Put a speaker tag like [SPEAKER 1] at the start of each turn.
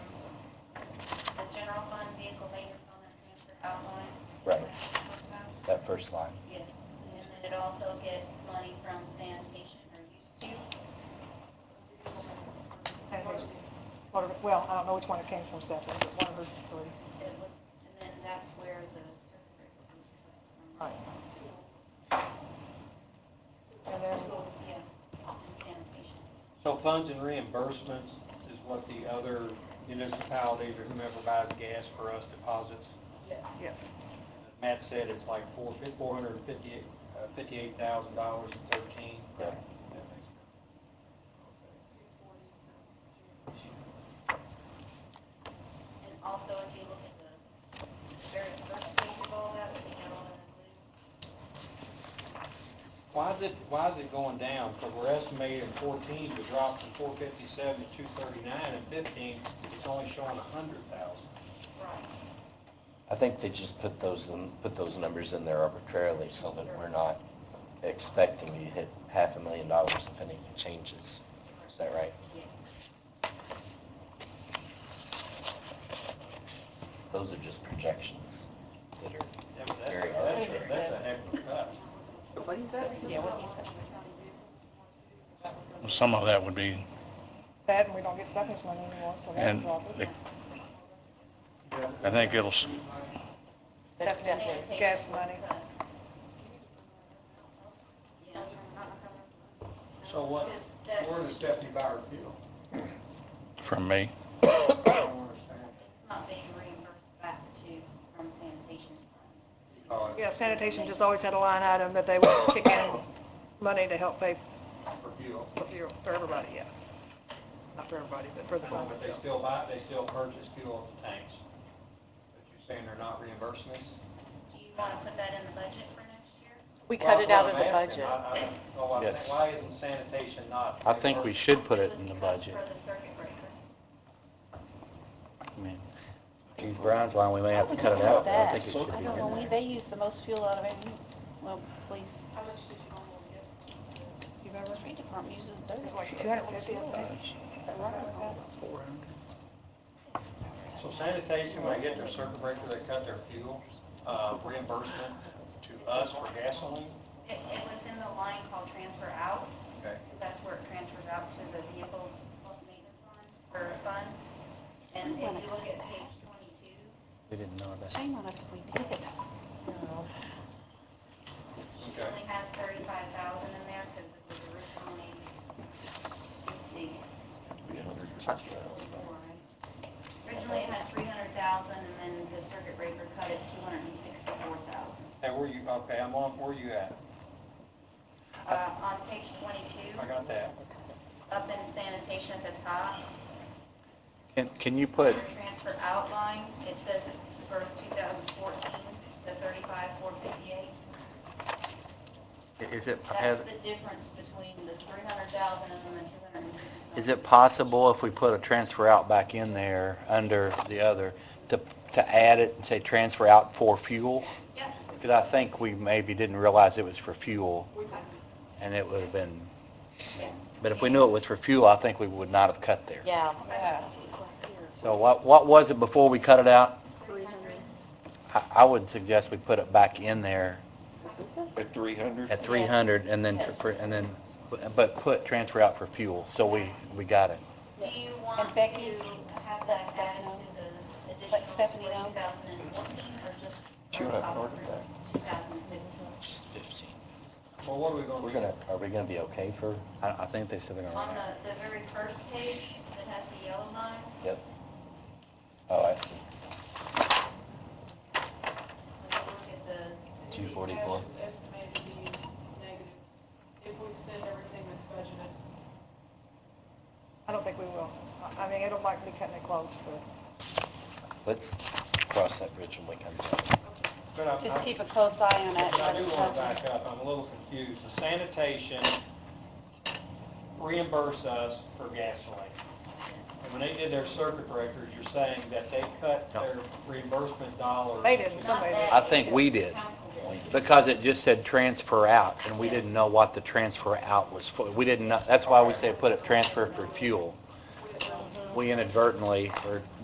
[SPEAKER 1] general fund vehicle maintenance on that transfer outline.
[SPEAKER 2] Right, that first line.
[SPEAKER 1] Yes, and then it also gets money from sanitation or used to.
[SPEAKER 3] Sanitation. One of her- Well, I don't know which one it came from, Stephanie, but one of her three.
[SPEAKER 1] It was, and then that's where the circuit breaker was from.
[SPEAKER 3] Right. And then,
[SPEAKER 1] Yeah, and sanitation.
[SPEAKER 4] So funds and reimbursements is what the other municipalities or whomever buys gas for us deposits.
[SPEAKER 3] yes,
[SPEAKER 4] Matt said it's like four, four hundred and fifty-eight, uh, fifty-eight thousand dollars and thirteen.
[SPEAKER 2] Correct.
[SPEAKER 1] And also, if you look at the very first page of all that, we have all that blue.
[SPEAKER 4] Why is it, why is it going down? Because we're estimating fourteen to drop from four fifty-seven to two thirty-nine, and fifteen, it's only showing a hundred thousand.
[SPEAKER 1] Right.
[SPEAKER 2] I think they just put those, in put those numbers in there arbitrarily so that we're not expecting to hit half a million dollars if anything changes. Is that right?
[SPEAKER 1] Yes.
[SPEAKER 2] Those are just projections that are,
[SPEAKER 4] That's, that's,
[SPEAKER 2] Very
[SPEAKER 4] that's a-
[SPEAKER 2] arbitrary.
[SPEAKER 4] that's a heck of a cut.
[SPEAKER 5] What he said? Yeah, what he said.
[SPEAKER 6] Well, Some of that would be,
[SPEAKER 3] that, and we don't get Stephanie's money anymore, so that's a
[SPEAKER 6] and
[SPEAKER 3] problem.
[SPEAKER 6] the- I think it'll, s-
[SPEAKER 5] That's definitely.
[SPEAKER 3] Gas money.
[SPEAKER 1] Yes.
[SPEAKER 4] So what,
[SPEAKER 1] Because that-
[SPEAKER 4] where does Stephanie buy her fuel?
[SPEAKER 6] from me,
[SPEAKER 4] I don't understand.
[SPEAKER 1] It's not being reimbursed back to, from sanitation.
[SPEAKER 4] Oh,
[SPEAKER 3] Yeah, sanitation just always had a line item that they would kick in money to help pay
[SPEAKER 4] for fuel.
[SPEAKER 3] for fuel, for everybody, yeah. Not for everybody, but for the fund
[SPEAKER 4] But they
[SPEAKER 3] itself.
[SPEAKER 4] still buy, they still purchase fuel at the tanks. But you're saying they're not reimbursing us?
[SPEAKER 1] Do you want to put that in the budget for next year?
[SPEAKER 5] We cut it out of the
[SPEAKER 4] Well, that's
[SPEAKER 5] budget.
[SPEAKER 4] what I'm asking. I- I don't know why-
[SPEAKER 6] Yes.
[SPEAKER 4] Why isn't sanitation not?
[SPEAKER 6] I think we
[SPEAKER 4] reimbursed?
[SPEAKER 6] should put it
[SPEAKER 1] was
[SPEAKER 6] in the
[SPEAKER 1] cut
[SPEAKER 6] budget.
[SPEAKER 1] For the circuit breaker.
[SPEAKER 6] I mean,
[SPEAKER 2] to Brian's line, we may have to cut it out, but I think it should be
[SPEAKER 5] I
[SPEAKER 2] in
[SPEAKER 5] don't know, we,
[SPEAKER 2] there.
[SPEAKER 5] they use the most fuel out of any, well, police,
[SPEAKER 3] You remember?
[SPEAKER 5] street department uses dirt.
[SPEAKER 3] It's like 250, I think.
[SPEAKER 4] So sanitation, when they get their circuit breaker, they cut their fuel uh, reimbursement to us for gasoline?
[SPEAKER 1] It, it was in the line called transfer out,
[SPEAKER 4] Okay.
[SPEAKER 1] because that's where it transfers out to the vehicle maintenance line or fund. And if you look at page twenty-two,
[SPEAKER 6] we didn't know that.
[SPEAKER 5] Shame on us if we did.
[SPEAKER 1] she
[SPEAKER 4] Okay.
[SPEAKER 1] only has thirty-five thousand in there because it was originally, let's see, four, right? Originally it had three hundred thousand and then the circuit breaker cut it two hundred and sixty-four thousand.
[SPEAKER 4] And where you, okay, I'm on, where you at?
[SPEAKER 1] Uh, on page twenty-two,
[SPEAKER 4] I got that.
[SPEAKER 1] up in sanitation at the top,
[SPEAKER 6] Can, can you put,
[SPEAKER 1] transfer outline, it says for 2014, the 35,458.
[SPEAKER 2] Is it,
[SPEAKER 1] That's the difference between the 300,000 and then the 250,000.
[SPEAKER 6] is it possible if we put a transfer out back in there under the other, to, to add it and say transfer out for fuel?
[SPEAKER 1] Yes.
[SPEAKER 6] Because I think we maybe didn't realize it was for fuel, and it would have been, but if we knew it was for fuel, I think we would not have cut there.
[SPEAKER 5] Yeah.
[SPEAKER 3] Yeah.
[SPEAKER 6] So what, what was it before we cut it out?
[SPEAKER 1] 300.
[SPEAKER 6] I, I would suggest we put it back in there
[SPEAKER 7] At 300?
[SPEAKER 6] at 300, and then, tr-
[SPEAKER 5] Yes.
[SPEAKER 6] and then, but put transfer out for fuel, so we, we got it.
[SPEAKER 1] Do you want
[SPEAKER 5] And
[SPEAKER 1] to
[SPEAKER 5] Becky-
[SPEAKER 1] have that added to the
[SPEAKER 5] Let
[SPEAKER 1] additional
[SPEAKER 5] Stephanie
[SPEAKER 1] for
[SPEAKER 5] know.
[SPEAKER 1] 2014 or just?
[SPEAKER 2] She would have to order
[SPEAKER 1] 2015.
[SPEAKER 2] Just 15.
[SPEAKER 4] Well, what are we going to
[SPEAKER 2] We're
[SPEAKER 4] do?
[SPEAKER 2] gonna, are we gonna be okay for,
[SPEAKER 6] I, I think they said they're gonna
[SPEAKER 1] On
[SPEAKER 6] run out.
[SPEAKER 1] the, the very first page that has the yellow lines,
[SPEAKER 2] yep. Oh, I see.
[SPEAKER 1] when you look at the
[SPEAKER 2] 244.
[SPEAKER 8] Cash is estimated to be negative if we spend everything that's budgeted.
[SPEAKER 3] I don't think we will. I- I mean, it'll likely cut it close for
[SPEAKER 2] Let's cross that bridge when we come to it.
[SPEAKER 4] But I-
[SPEAKER 5] Just
[SPEAKER 4] I-
[SPEAKER 5] keep a close eye on it.
[SPEAKER 4] I do want to back up, I'm a little confused. The Sanitation reimburse us for gasoline. And when they did their circuit breakers, you're saying that they cut their reimbursement dollars.
[SPEAKER 3] They didn't.
[SPEAKER 1] Not
[SPEAKER 3] Somebody-
[SPEAKER 1] that
[SPEAKER 6] I think
[SPEAKER 1] either.
[SPEAKER 6] we did.
[SPEAKER 1] Council did.
[SPEAKER 6] Because it just said transfer out, and we didn't know what the transfer out was for. We didn't know, that's why we say put it transfer for fuel. We inadvertently, or